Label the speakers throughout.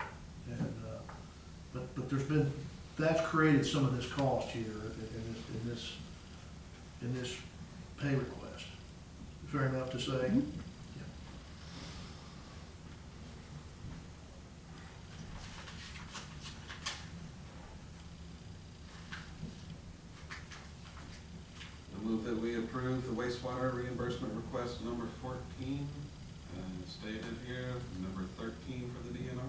Speaker 1: uh, but there's been, that's created some of this cost here in in this, in this, in this pay request. Fair enough to say?
Speaker 2: Mhm.
Speaker 3: I move that we approve the wastewater reimbursement request number fourteen, uh, stated here, number thirteen for the DNR.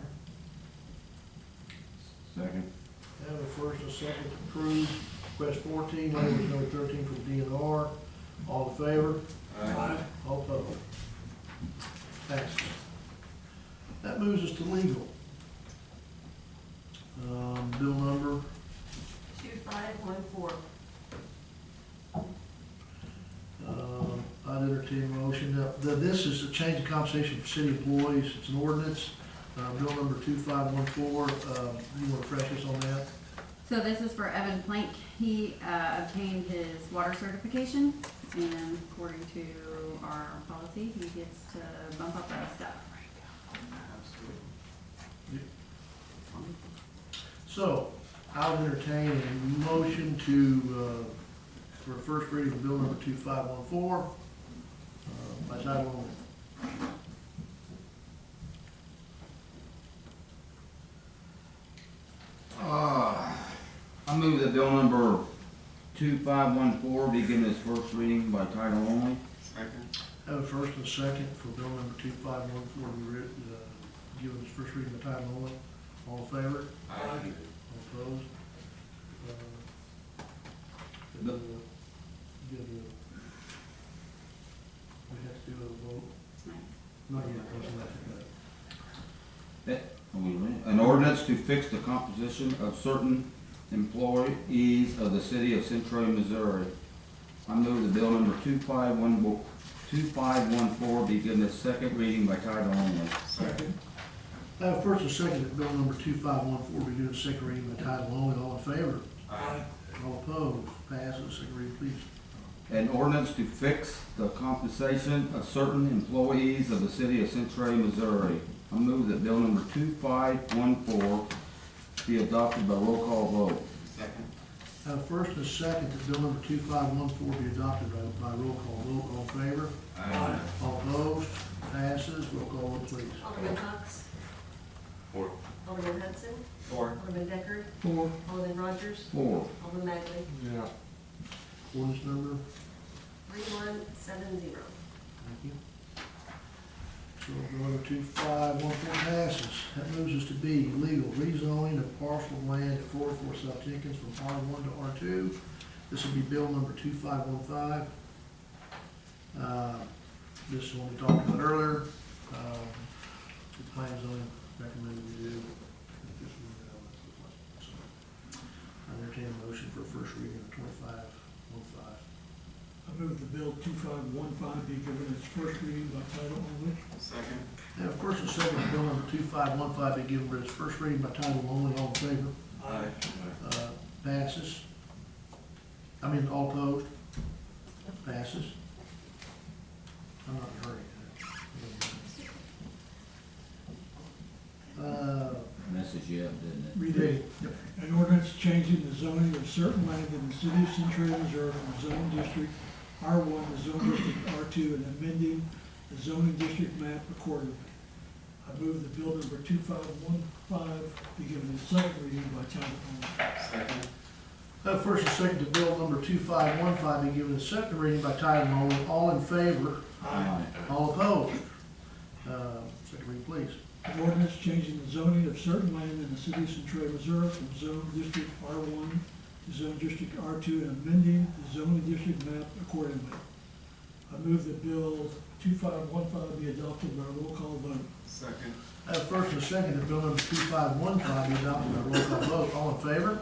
Speaker 4: Second.
Speaker 1: Have a first and a second to approve request fourteen, language number thirteen from DNR. All in favor? All opposed? Passes. That moves us to legal. Um, bill number,
Speaker 5: Two five one four.
Speaker 1: um, I'd entertain a motion. Now, th- this is a change of compensation for city employees. It's an ordinance. Uh, bill number two five one four, um, you want to refresh us on that?
Speaker 2: So this is for Evan Plank. He uh, obtained his water certification, and according to our policy, he gets to bump up that stuff.
Speaker 3: Absolutely.
Speaker 1: So, I would entertain a motion to, uh, for first reading of bill number two five one four, uh, by title only.
Speaker 4: Uh, I move that bill number two five one four be given its first reading by title only.
Speaker 3: Second.
Speaker 1: Have a first and a second for bill number two five one four, to be writ- uh, given its first reading by title only. All in favor?
Speaker 3: Aye.
Speaker 1: All opposed? Uh,
Speaker 4: No.
Speaker 1: uh, Good, uh, we have to do a vote, not yet, that's not,
Speaker 4: Oh, wait a minute. An ordinance to fix the composition of certain employees of the city of Central, Missouri. I move that bill number two five one, two five one four be given its second reading by title only.
Speaker 3: Second.
Speaker 1: I have first and second that bill number two five one four be given its second reading by title only. All in favor?
Speaker 3: Aye.
Speaker 1: All opposed? Passes. Second reading, please.
Speaker 4: An ordinance to fix the compensation of certain employees of the city of Central, Missouri. I move that bill number two five one four be adopted by roll call vote.
Speaker 3: Second.
Speaker 1: I have first and second that bill number two five one four be adopted by, by roll call vote. All in favor?
Speaker 3: Aye.
Speaker 1: All opposed? Passes. Roll call vote, please.
Speaker 5: Alderman Cox.
Speaker 3: Four.
Speaker 5: Alderman Hudson.
Speaker 3: Four.
Speaker 5: Alderman Deckard.
Speaker 4: Four.
Speaker 5: Alderman Rogers.
Speaker 4: Four.
Speaker 5: Alderman Magley.
Speaker 3: Yeah.
Speaker 1: Ordinance number,
Speaker 5: Three one seven zero.
Speaker 1: thank you. So bill number two five one four passes. That moves us to B, legal rezoning of parcel of land at four oh four South Jenkins from R one to R two. This will be bill number two five one five. Uh, This is one we talked about earlier. Um, The plan zoning recommended we do. I entertain a motion for first reading of twenty-five one five.
Speaker 6: I move the bill two five one five be given its first reading by title only.
Speaker 3: Second.
Speaker 1: And of course, the second bill number two five one five be given its first reading by title only, all in favor, uh, passes. I mean, all opposed, passes. I'm not in a hurry. Uh,
Speaker 4: And this is yet, didn't
Speaker 6: Read
Speaker 1: Reed,
Speaker 6: it. An ordinance changing the zoning of certain land in the city of Centralia, Missouri from zone district R one to zone district R two and amending the zoning district map accordingly. I move the bill number two five one five be given its second reading by title only.
Speaker 3: Second.
Speaker 1: Have first and second to bill number two five one five be given its second reading by title only, all in favor,
Speaker 4: it? Aye.
Speaker 1: all opposed. Uh, second reading, please.
Speaker 6: An ordinance changing the zoning of certain land in the city of Centralia, Missouri from zone district R one to zone district R two and amending the zoning district map accordingly. I move that bill two five one five be adopted by roll call vote.
Speaker 3: Second.
Speaker 1: I Have first and second to bill number two five one five be adopted by roll call vote, all in favor,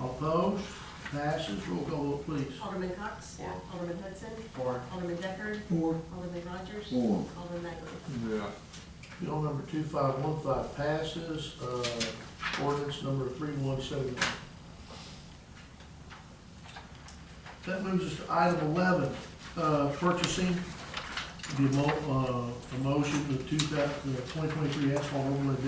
Speaker 1: All Opposed, passes, roll call vote please.
Speaker 5: Alderman Cox.
Speaker 3: Four.
Speaker 5: Alderman Hudson.
Speaker 3: Four.
Speaker 5: Alderman Deckard.
Speaker 6: Four,
Speaker 5: Alderman Rogers.
Speaker 4: Four.
Speaker 5: Alderman Magley.
Speaker 3: Yeah.
Speaker 1: Bill number two five one five passes, uh, ordinance number three one seven nine. That moves us to item eleven, uh, purchasing the mo, uh, a motion, the two thousand, the twenty uh, twenty-three asphalt overlay